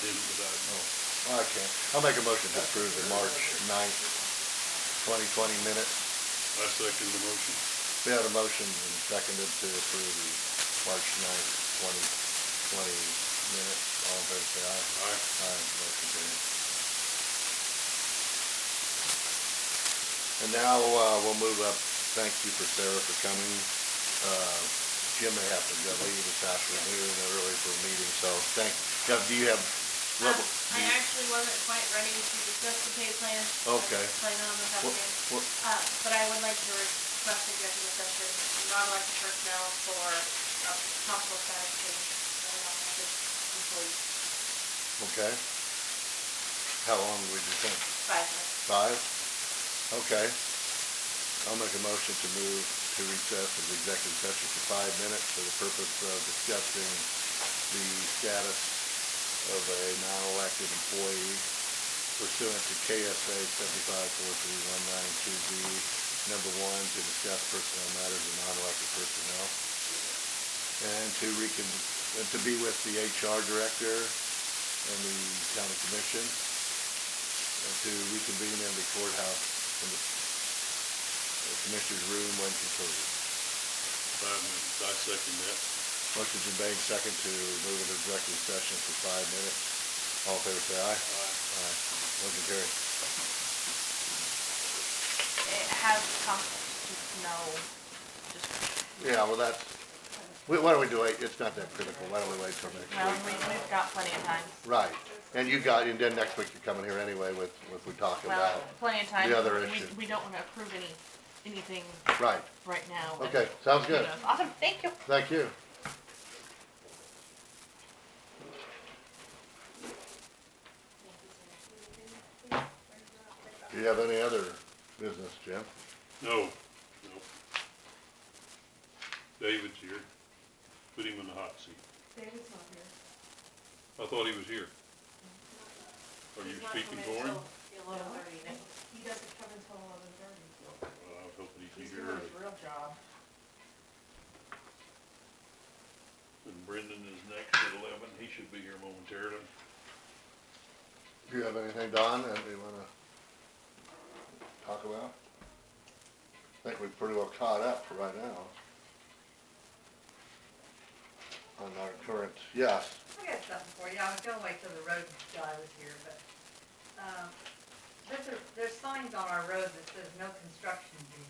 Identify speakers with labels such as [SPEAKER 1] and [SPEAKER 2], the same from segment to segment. [SPEAKER 1] didn't without,
[SPEAKER 2] Well, Oh, I can't. I'll make a motion to approve the March 9th, twenty twenty minutes.
[SPEAKER 1] I second the motion.
[SPEAKER 2] We had a motion and seconded to approve the March 9th, twenty twenty minutes. All in favor, say aye.
[SPEAKER 1] Aye.
[SPEAKER 2] Aye, motion carried. And now, uh, we'll move up. Thank you for Sarah for coming. Uh, Jim may have to go leave this afternoon early for a meeting, so thank, Jeff, do you have?
[SPEAKER 3] Um,
[SPEAKER 2] rubber-
[SPEAKER 3] I actually wasn't quite ready to discuss the pay plan.
[SPEAKER 2] Okay.
[SPEAKER 3] Plan on this
[SPEAKER 2] What, what,
[SPEAKER 3] afternoon. Uh, but I would like to request executive session, non-elected personnel for uh, possible satisfaction of non-elected employees.
[SPEAKER 2] Okay. How long would you think?
[SPEAKER 3] Five minutes.
[SPEAKER 2] Five? Okay. I'll make a motion to move to recess as executive session for five minutes for the purpose of discussing the status of a non-elected employee pursuant to KSA seventy-five four three one nine two B, number one, to discuss personnel matters of non-elected personnel. And to recon, and to be with the HR director and the county commission and to reconvene in the courthouse in the the commissioner's room when concluded.
[SPEAKER 1] Five minutes, I second that.
[SPEAKER 2] Motion's been made second to move into executive session for five minutes. All in favor, say
[SPEAKER 1] Aye.
[SPEAKER 2] aye. Aye. Motion carried.
[SPEAKER 3] It has come, no, just,
[SPEAKER 2] Yeah, well, that's, we- why don't we do it, it's not that critical, why don't we wait till next
[SPEAKER 3] well, we,
[SPEAKER 2] week?
[SPEAKER 3] we've got plenty of time.
[SPEAKER 2] Right, and you got, and then next week you're coming here anyway with, with we talk
[SPEAKER 3] Well,
[SPEAKER 2] about.
[SPEAKER 3] plenty of time.
[SPEAKER 2] the other
[SPEAKER 3] We-
[SPEAKER 2] issue.
[SPEAKER 3] We don't wanna approve any, anything
[SPEAKER 2] Right,
[SPEAKER 3] right now. and,
[SPEAKER 2] okay, sounds
[SPEAKER 3] you
[SPEAKER 2] good,
[SPEAKER 3] know, Awesome, thank you.
[SPEAKER 2] thank you. Do you have any other business, Jim?
[SPEAKER 1] No, no. David's here. Put him in the hot seat.
[SPEAKER 4] David's not here.
[SPEAKER 1] I thought he was here. Are you
[SPEAKER 3] He's not
[SPEAKER 1] speaking
[SPEAKER 3] coming
[SPEAKER 1] for him?
[SPEAKER 3] till Eleven thirty next
[SPEAKER 4] He doesn't come until eleven thirty.
[SPEAKER 1] Well, I was hoping he'd
[SPEAKER 4] He's
[SPEAKER 1] be here
[SPEAKER 4] doing his
[SPEAKER 1] early.
[SPEAKER 4] real job.
[SPEAKER 1] And Brendan is next at eleven. He should be here momentarily.
[SPEAKER 2] Do you have anything, Don, that we wanna talk about? I think we're pretty well caught up for right now. On our current, yes,
[SPEAKER 5] I got something for you. I was gonna wait till the road guy was here, but, um, there's a, there's signs on our road that says no construction due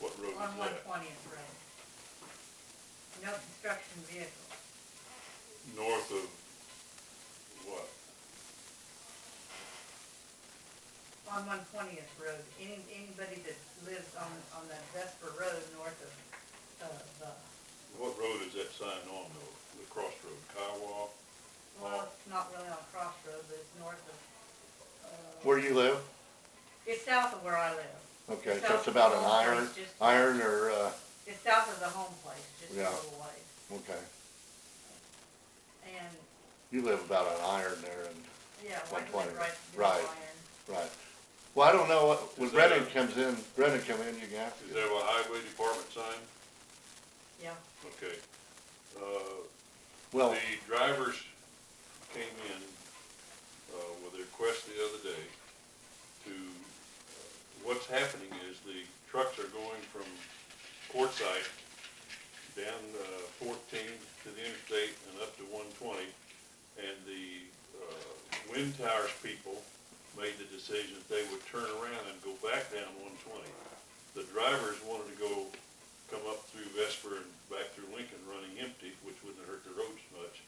[SPEAKER 1] What road
[SPEAKER 5] on
[SPEAKER 1] is
[SPEAKER 5] one
[SPEAKER 1] that?
[SPEAKER 5] twentieth road. No construction vehicle.
[SPEAKER 1] North of what?
[SPEAKER 5] On one twentieth road, any, anybody that lives on, on that Vesper Road north of, of, uh,
[SPEAKER 1] What road is that sign on though? The crossroad, Kiowa?
[SPEAKER 5] well, it's not really on Crossroads, but it's north of, uh,
[SPEAKER 2] where you live?
[SPEAKER 5] it's south of where I live.
[SPEAKER 2] Okay, so it's about an iron, iron or, uh,
[SPEAKER 5] It's south of the home place, just a
[SPEAKER 2] Yeah.
[SPEAKER 5] little ways.
[SPEAKER 2] okay.
[SPEAKER 5] And,
[SPEAKER 2] You live about an iron there and,
[SPEAKER 5] yeah,
[SPEAKER 2] One
[SPEAKER 5] like
[SPEAKER 2] twenty,
[SPEAKER 5] right, right.
[SPEAKER 2] right. right. Well, I don't know, what when
[SPEAKER 1] Is that
[SPEAKER 2] Brennan
[SPEAKER 1] a-
[SPEAKER 2] comes in, Brennan come in, you can ask.
[SPEAKER 1] Is that a highway department sign?
[SPEAKER 5] Yeah.
[SPEAKER 1] Okay. Uh,
[SPEAKER 2] Well,
[SPEAKER 1] The drivers came in, uh, with a request the other day to, uh, what's happening is the trucks are going from Quartzsite down, uh, fourteen to the interstate and up to one twenty. And the, uh, wind towers people made the decision that they would turn around and go back down one twenty. The drivers wanted to go come up through Vesper and back through Lincoln running empty, which wouldn't have hurt the roads much.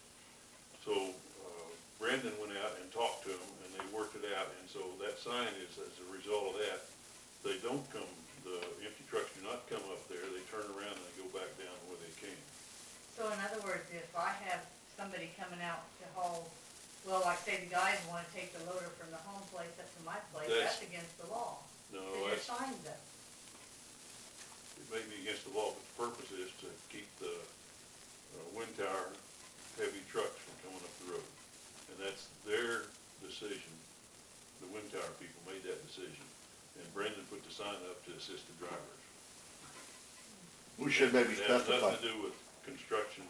[SPEAKER 1] So uh, Brendan went out and talked to them, and they worked it out, and so that sign is, as a result of that, they don't come, the empty trucks do not come up there, they turn around and they go back down where they came.
[SPEAKER 5] So in other words, if I have somebody coming out to haul, well, like say the guys wanna take the loader from the home place up to my place,
[SPEAKER 1] That's-
[SPEAKER 5] that's against the law.
[SPEAKER 2] Oh,
[SPEAKER 1] No,
[SPEAKER 5] Cause your
[SPEAKER 1] that's,
[SPEAKER 5] sign's up.
[SPEAKER 1] it may be against the law, but the purpose is to keep the uh, wind tower heavy trucks from coming up the road. And that's their decision. The wind tower people made that decision. And Brendan put the sign up to assist the drivers.
[SPEAKER 2] we should maybe
[SPEAKER 1] It has
[SPEAKER 2] specify.
[SPEAKER 1] Nothing to do with construction